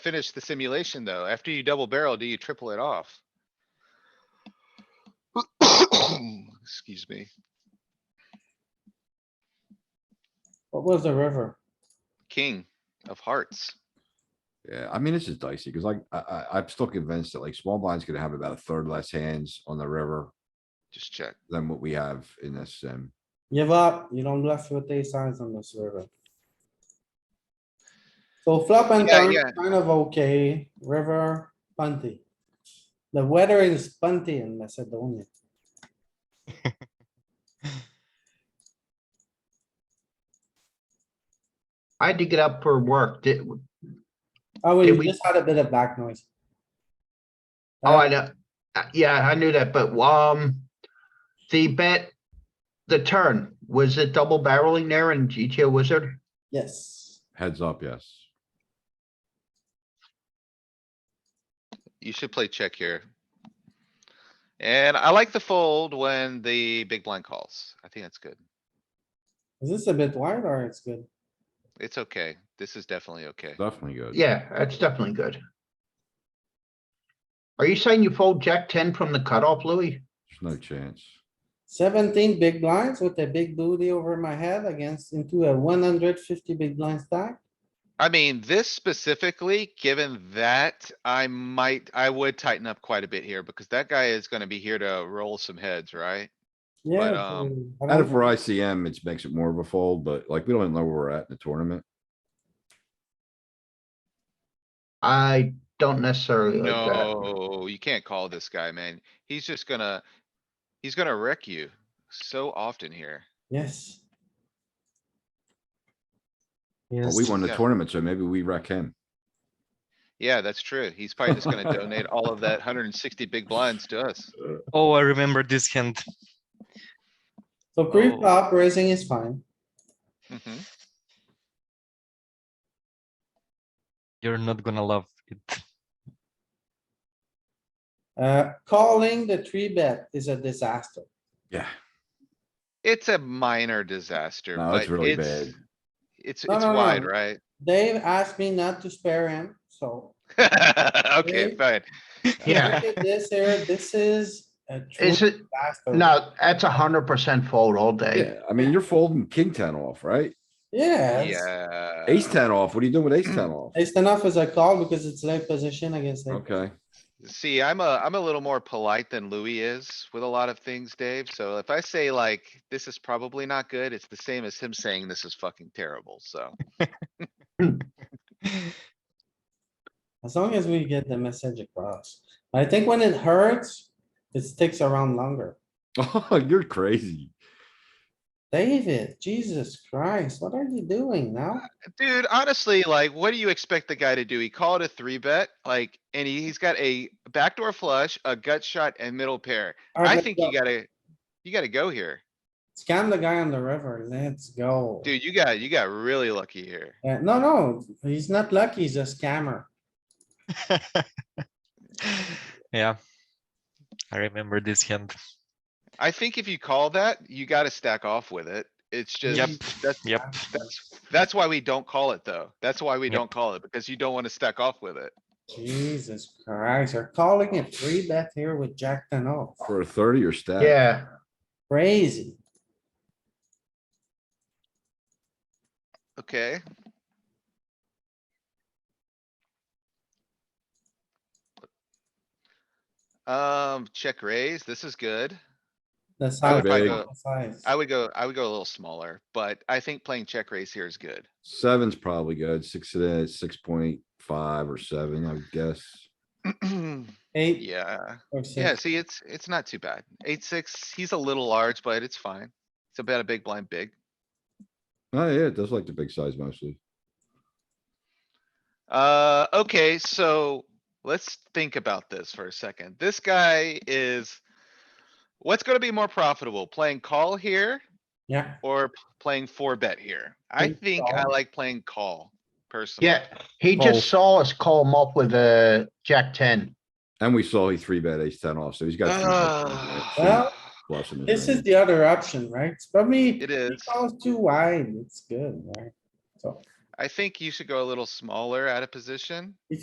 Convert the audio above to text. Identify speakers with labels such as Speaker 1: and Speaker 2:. Speaker 1: finish the simulation though. After you double barrel, do you triple it off? Excuse me.
Speaker 2: What was the river?
Speaker 1: King of hearts.
Speaker 3: Yeah, I mean, this is dicey because like I, I, I'm still convinced that like small blind's gonna have about a third less hands on the river
Speaker 1: Just check.
Speaker 3: than what we have in this sim.
Speaker 2: Give up, you don't bluff with ace signs on this river. So flop and
Speaker 1: Yeah,
Speaker 2: turn,
Speaker 1: yeah.
Speaker 2: kind of okay, river, punty. The weather is punty in Macedonia.
Speaker 4: I had to get up for work. Did, oh,
Speaker 2: Oh,
Speaker 4: Did
Speaker 2: we
Speaker 4: we-
Speaker 2: just had a bit of back noise.
Speaker 4: I know. Uh, Yeah, I knew that, but um, the bet, the turn, was it double barreling there in GTO wizard?
Speaker 2: Yes,
Speaker 3: Heads up, yes.
Speaker 1: You should play check here. And I like the fold when the big blind calls. I think that's good.
Speaker 2: is this a bit wide or it's good?
Speaker 1: It's okay. This is definitely okay.
Speaker 3: Definitely good.
Speaker 4: Yeah, that's definitely good. Are you saying you fold jack ten from the cutoff, Louis?
Speaker 3: There's no chance.
Speaker 2: Seventeen big blinds with a big booty over my head against into a one hundred fifty big blind stack.
Speaker 1: I mean, this specifically, given that, I might, I would tighten up quite a bit here because that guy is gonna be here to roll some heads, right?
Speaker 2: Yeah.
Speaker 1: um,
Speaker 2: dude, I
Speaker 3: Out
Speaker 2: don't
Speaker 3: of
Speaker 2: know.
Speaker 3: for ICM, it makes it more of a fold, but like we don't even know where we're at in the tournament.
Speaker 4: I don't necessarily like that.
Speaker 1: No, you can't call this guy, man. He's just gonna, he's gonna wreck you so often here.
Speaker 2: Yes.
Speaker 3: But we won the
Speaker 1: Yeah.
Speaker 3: tournament, so maybe we wreck him.
Speaker 1: Yeah, that's true. He's probably just gonna donate all of that hundred and sixty big blinds to us.
Speaker 5: Oh, I remember this hand.
Speaker 2: So pre-flop raising is fine.
Speaker 1: Mhm.
Speaker 5: You're not gonna love it.
Speaker 2: Uh, calling the three bet is a disaster.
Speaker 3: Yeah,
Speaker 1: It's a minor disaster,
Speaker 3: no,
Speaker 1: but
Speaker 3: it's really
Speaker 1: it's,
Speaker 3: bad.
Speaker 1: it's, it's
Speaker 2: No, no, no.
Speaker 1: wide, right?
Speaker 2: Dave asked me not to spare him, so.
Speaker 1: Okay,
Speaker 2: Right?
Speaker 1: fine.
Speaker 4: Yeah,
Speaker 2: look at This here, this is a true
Speaker 4: is it,
Speaker 2: disaster.
Speaker 4: no, that's a hundred percent fold all day.
Speaker 3: Yeah, I mean, you're folding king ten off, right?
Speaker 2: Yes,
Speaker 1: Yeah.
Speaker 3: Ace ten off. What are you doing with Uh, mm. ace ten off?
Speaker 2: it's enough as a call because it's late position against it.
Speaker 3: Okay,
Speaker 1: See, I'm a, I'm a little more polite than Louis is with a lot of things, Dave. So if I say like, this is probably not good, it's the same as him saying this is fucking terrible, so.
Speaker 2: As long as we get the message across. I think when it hurts, it sticks around longer.
Speaker 3: oh, you're crazy.
Speaker 2: David, Jesus Christ, what are you doing now?
Speaker 1: Dude, honestly, like, what do you expect the guy to do? He called a three bet, like, and he- he's got a backdoor flush, a gut shot and middle pair. I think you gotta, you gotta go here.
Speaker 2: Scam the guy on the river. Let's go.
Speaker 1: Dude, you got, you got really lucky here.
Speaker 2: Uh, no, no, he's not lucky. He's a scammer.
Speaker 5: yeah, I remember this hand.
Speaker 1: I think if you call that, you gotta stack off with it. It's
Speaker 5: Yep,
Speaker 1: just, that's,
Speaker 5: yep.
Speaker 1: that's, that's why we don't call it though. That's why we
Speaker 5: Yep.
Speaker 1: don't call it because you don't wanna stack off with it.
Speaker 2: Jesus Christ, they're calling it three bet here with Jack ten off.
Speaker 3: For a thirty or stat.
Speaker 4: Yeah,
Speaker 2: Crazy.
Speaker 1: Okay. Um, check raise. This is good.
Speaker 2: The size.
Speaker 1: I would
Speaker 3: Big.
Speaker 1: probably
Speaker 2: the
Speaker 1: go,
Speaker 2: size.
Speaker 1: I would go, I would go a little smaller, but I think playing check raise here is good.
Speaker 3: Seven's probably good. Six it is, six point five or seven, I would guess.
Speaker 2: Eight
Speaker 1: Yeah,
Speaker 2: or
Speaker 1: yeah,
Speaker 2: six.
Speaker 1: see, it's, it's not too bad. Eight, six, he's a little large, but it's fine. It's about a big blind big.
Speaker 3: Oh, yeah, it does like the big size mostly.
Speaker 1: Uh, okay, so let's think about this for a second. This guy is. What's gonna be more profitable, playing call here
Speaker 2: Yeah,
Speaker 1: or p- playing four bet here? I
Speaker 2: Playing
Speaker 1: think I
Speaker 2: call.
Speaker 1: like playing call personally.
Speaker 4: yeah. He just saw us call him up with a jack ten.
Speaker 3: And we saw he three bet ace ten off, so he's got. three
Speaker 1: Ah,
Speaker 3: bets, right?
Speaker 2: Well,
Speaker 3: Two plus in his
Speaker 2: this is
Speaker 3: range.
Speaker 2: the other option, right? It's probably.
Speaker 1: It is.
Speaker 2: Calls too wide. It's good, right? So.
Speaker 1: I think you should go a little smaller out of position.